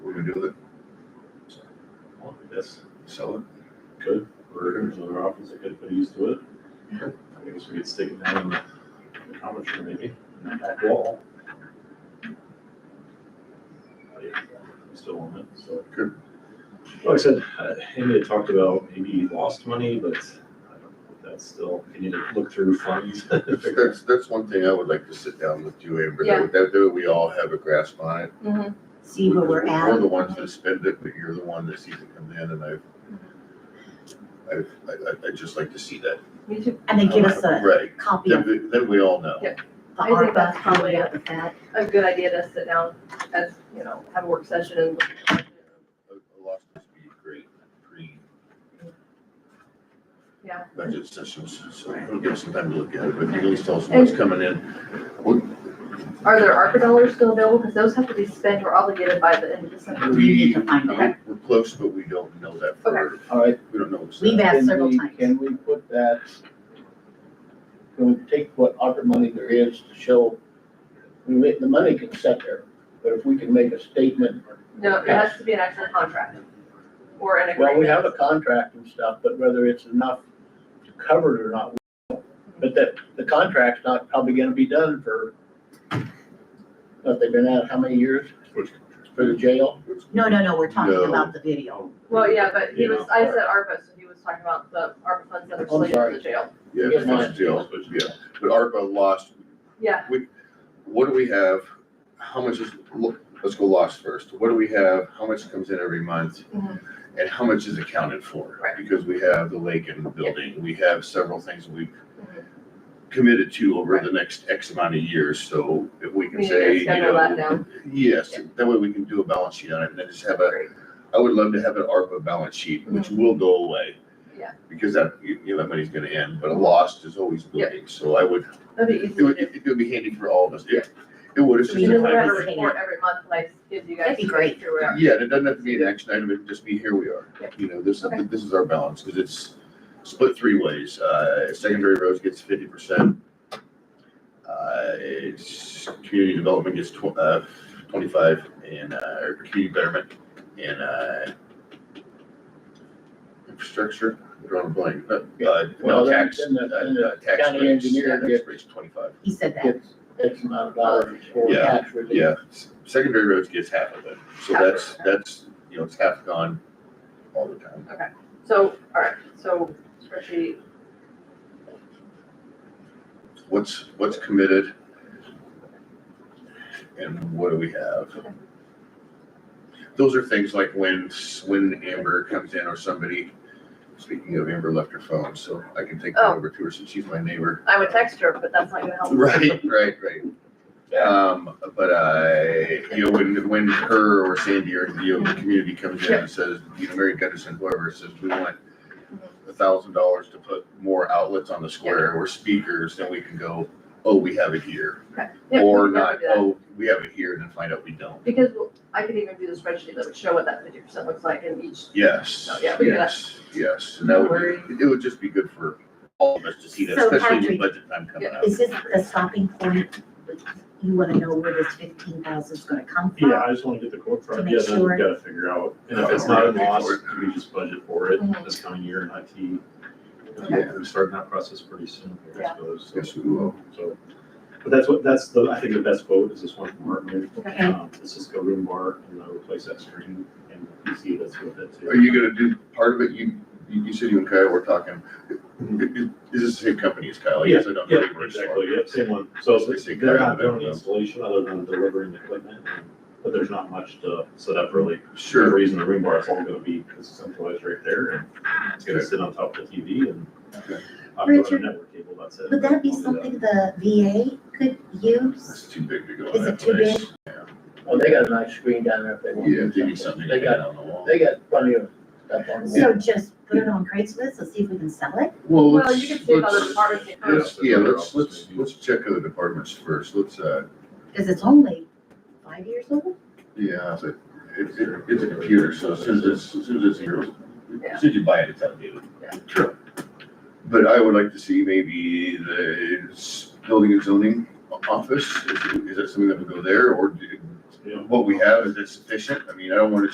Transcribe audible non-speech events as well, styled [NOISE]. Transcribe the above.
do with it? I guess, Sell it? could, or there's other options that could put used to it. I guess we could stick it down in the in the conference room maybe, in the back wall. But yeah, we Still on it, so. Good. Like I said, uh, Amy had talked about maybe he lost money, but I don't know if that's still, you need to look through funds. [LAUGHS] figure That's, that's one thing I would like to sit down with you, Amber, that, that way we all have a grasp on it. Mm-hmm. see where we're Because at. We're the ones that spend it, but you're the one that sees it come in, and I've, I've, I, I- I'd just like to see that. Me too. And then give us a Right, copy then, of the we- then we all know. Yeah. I think ARPA, that's how we probably got with that. A good idea to sit down as, you know, have a work session and. look at it. A a lot of us be great pre Yeah. budget sessions, so we'll give us some time to look at it, but at least tell us what's coming in. Are there ARPA dollars still available? Because those have to be spent or obligated by the end of December. We need to find that. We're close, but we don't know that for, All right. we don't know what's We've that. asked can several we- times. Can we put that, can we take what ARPA money there is to show, we ma- the money can sit there, but if we can make a statement. No, it has to be an actual contract or an agreement. Well, we have a contract and stuff, but whether it's enough to cover it or not, we don't know. but that, the contract's not probably gonna be done for, what, they've been at, how many years Which- for the jail? No, no, no, we're talking No. about the video. Well, yeah, but he You was, know. uh, I said ARPA, so he was talking about the ARPA funds that are I'm slated for sorry. the jail. Yeah, Get mine. it's still, yeah, but ARPA lost, Yeah, what do we have? How much is, look, let's go lost first, what do we have, how much comes in every month? Mhm. And how much is accounted for? Right. Because we have the lake and the building, we have several things that we Mhm. committed to over the next X amount of years, so if we we can need say, to you schedule that know. down. Yes, that way we can do a balance sheet on it, and then just have a, Great. I would love to have an ARPA balance sheet, which will go away. Mm-hmm. Yeah. Because that, you you know, that money's gonna end, but a lost is always Yeah. moving, so I would, That'd be easy it to would, do. it would be handy for all of us, it, it would, it's So just. You we a just know time- where have a everything report every month, like, gives you guys. That'd be great. through where- Yeah, and it doesn't have to be an action item, it can just be, here we are, Yeah. you know, this, Okay. this is our balance, because it's split three ways, uh, secondary roads gets fifty percent. Uh, it's, community development gets tw- uh, twenty-five, and, uh, or community betterment, and, uh, infrastructure, we're drawing a blank, but, uh, Well, no, then- tax, then the- uh, then the uh, tax county rates, engineer yeah, tax gets- rates twenty-five, He said that. It's X amount of dollars for Yeah, tax relief. yeah, s- secondary roads gets half of it, so Half of that's, it. that's, you know, it's half gone all the time. So, all right, so spreadsheet, what's, what's committed? And what do we have? Those are things like when, when Amber comes in or somebody, speaking of Amber left her phone, so I can take that Oh. over to her since she's my neighbor. I would text her, but that's not gonna help. Right, right, right. Um, but I, you know, when, when her or Sandy or the yoga community comes in and says, you know, Mary Gunderson, whoever says, we want a thousand dollars to put more outlets on the square or speakers, then we can go, oh, we have it here. Yeah, Or we can not, do that. oh, we have it here and then find out we don't. Because I could even do the spreadsheet that would show what that fifty percent looks like in each, Yes, Oh, yeah, we do that. yes, yes. And that would, be- it would just be good for all of us to see that, So especially with Patrick- budget time coming up. Is this the stopping point? You wanna know where this fifteen thousand is gonna come from? Yeah, I just wanna get the quote To from, make yeah, then we sure. gotta figure out, and Oh, if it's not a loss, we just budget for it Mm-hmm. this coming year in IT. Okay. We're starting that process pretty soon, I Yeah. suppose, so. Yes, we will. So, but that's what, that's the, I think the best quote is this one from Martin. Okay. Um, Let's just go room bar and uh, replace that screen and PC that's with it Are too. you gonna do part of it? You, you you said you and Kyle were talking. Is this the same company as Kyle? Yes, I don't Yeah, really exactly, yep, same one. So It's basically they're kind not of doing a- installation other than delivering the equipment, but there's not much to set up really. Sure. We're using the room bar, it's all gonna be centralized right there and it's gonna sit on top of the TV and Okay. I'm going to Richard, network cable, that's it. Would that be I'll do something the VA could use? That's too big to go Is in that it too big? place. Well, Oh, they got a nice screen down there if they want. Yeah, give me something to They hang got, on the wall. they got plenty of stuff on the So wall. just put it on Craigslist and see if we can sell it? Well, Well, let's, you can see if other let's, departments get Yeah. code. let's, yeah, let's, let's, let's check other departments first. Let's, uh, Cause it's only five years old? Yeah, it's a, it's, a- it's a computer, so as soon as, it's- as soon as it's yours, Yeah. as soon as you buy it, it's outdated. True. But I would like to see maybe the s- building and zoning o- office, is, is that something that would go there, or do- Yeah. what we have, is it sufficient? I mean, I don't wanna